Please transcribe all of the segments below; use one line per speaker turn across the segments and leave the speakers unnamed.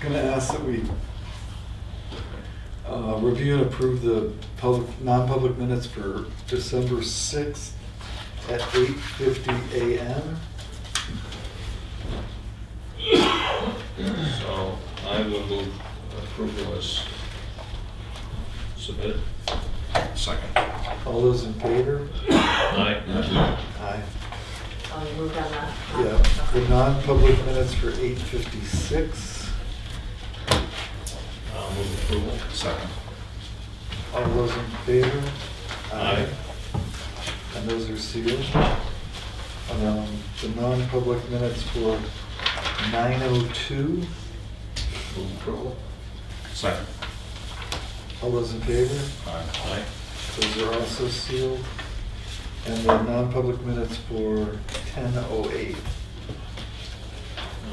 gonna ask that we uh, review and approve the public, non-public minutes for December sixth at eight fifty AM.
So I will move approval as submitted.
Second.
All those in favor?
Aye.
Aye.
Oh, you moved on that?
Yeah, the non-public minutes for eight fifty-six.
I'll move approval.
Second.
All those in favor?
Aye.
And those are sealed. Um, The non-public minutes for nine oh two.
Move approval.
Second.
All those in favor?
Aye.
Aye.
Those are also sealed. And the non-public minutes for ten oh eight.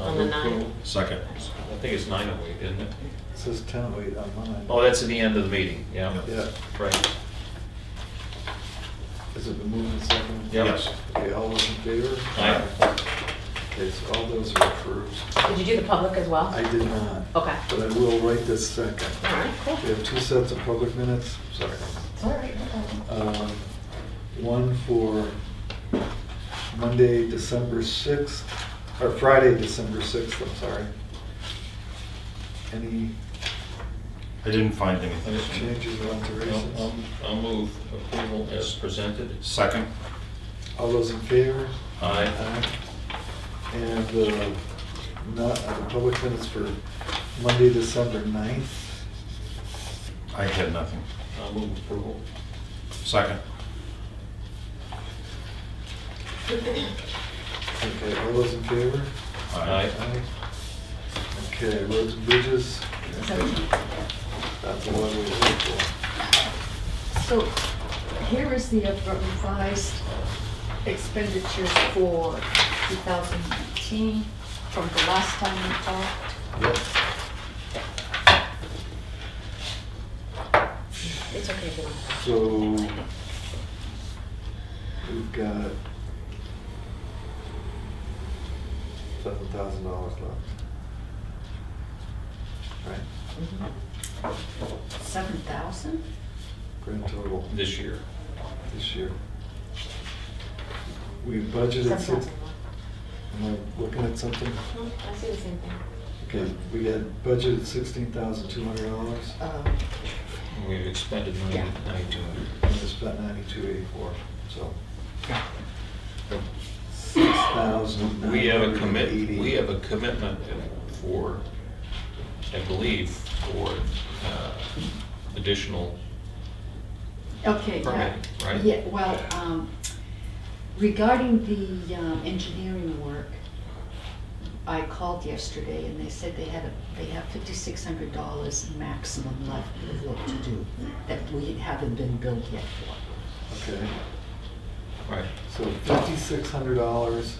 I'll
On the
move
nine.
approval.
Second.
I think it's nine oh eight, isn't it?
It says ten oh eight on mine.
Oh, that's at the end of the meeting, yeah.
Yeah,
Right.
has it been moved and seconded?
Yeah.
Yes.
Okay, all those in favor?
Aye.
Okay, so all those are approved.
Did you do the public as well?
I did not.
Okay.
But I will right this second.
All right, cool.
We have two sets of public minutes, sorry.
It's all right, no problem.
Um, One for Monday, December 6th, or Friday, December 6th, I'm sorry. Any
I didn't find
I just-
anything.
changes or
I'll- I'll-
alterations?
I'll move approval as presented.
Second.
All those in favor?
Aye.
Aye. And the, not, uh, the public minutes for Monday, December 9th.
I had nothing.
I'll move approval.
Second.
Okay, all those in favor?
Aye.
Aye. Okay, roads and bridges, that's the one we look for.
So here is the revised expenditures for 2018 from the last time we talked.
Yep.
It's okay if you don't.
So, we've got seven thousand dollars left. Right,
Mhm.
7,000?
grand total
This year.
this year. We budgeted six,
Sometimes I'm
am I looking at something?
not. Hmm, I see the same thing.
Okay, we had budgeted sixteen thousand two hundred dollars.
Um,
We've expended
Yeah.
nine- 92.
And it's about ninety-two eighty-four, so. Six thousand.
We have a commit, we have a commitment for, I believe, for uh, additional,
Okay, yeah.
Permit, right?
Yeah, well, um, regarding the um, engineering work, I called yesterday and they said they had, a- they have fifty-six hundred dollars maximum left of work to do that we haven't been billed yet for.
Okay,
right,
so fifty-six hundred dollars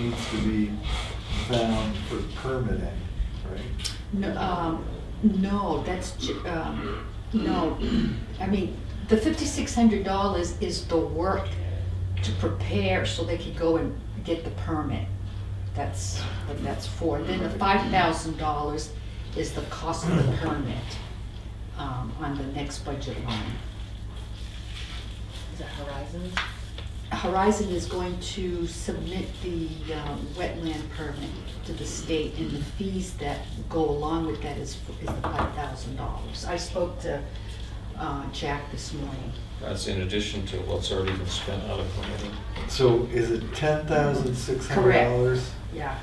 needs to be found for permitting, right?
No, um, no, that's, ju- um, no, I mean, the fifty-six hundred dollars is the work to prepare so they could go and get the permit. That's what that's for. Then the five thousand dollars is the cost of the permit, um, on the next budget line.
Is it Horizons?
Horizon is going to submit the um, wetland permit to the state, and the fees that go along with that is is the five thousand dollars. I spoke to uh, Jack this morning.
that's in addition to what's already been spent out of planning.
So is it ten thousand six hundred dollars?
Yeah.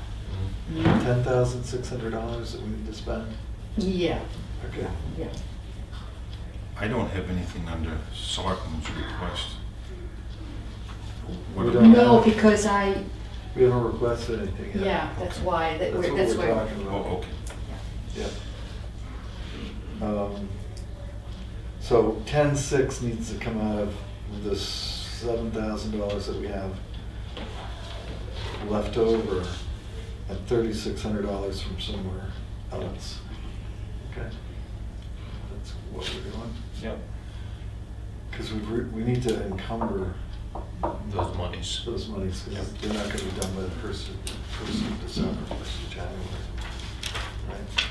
Ten thousand six hundred dollars that we need to spend?
Yeah,
Okay,
yeah.
I don't have anything under selectmen's request.
We
What
don't-
do
No, because I,
we haven't requested anything yet.
yeah, that's why, that
That's
we're-
what
that's
we're
why.
talking
we-
about.
Oh, okay.
Yep. Um, So ten six needs to come out of the seven thousand dollars that we have left over and thirty-six hundred dollars from somewhere else. Okay? That's what we're doing,
Yep.
because we, re- we need to encumber
Those monies.
those monies,
Yep.
because they're not gonna be done by the first, of- first of December, first of January. Right?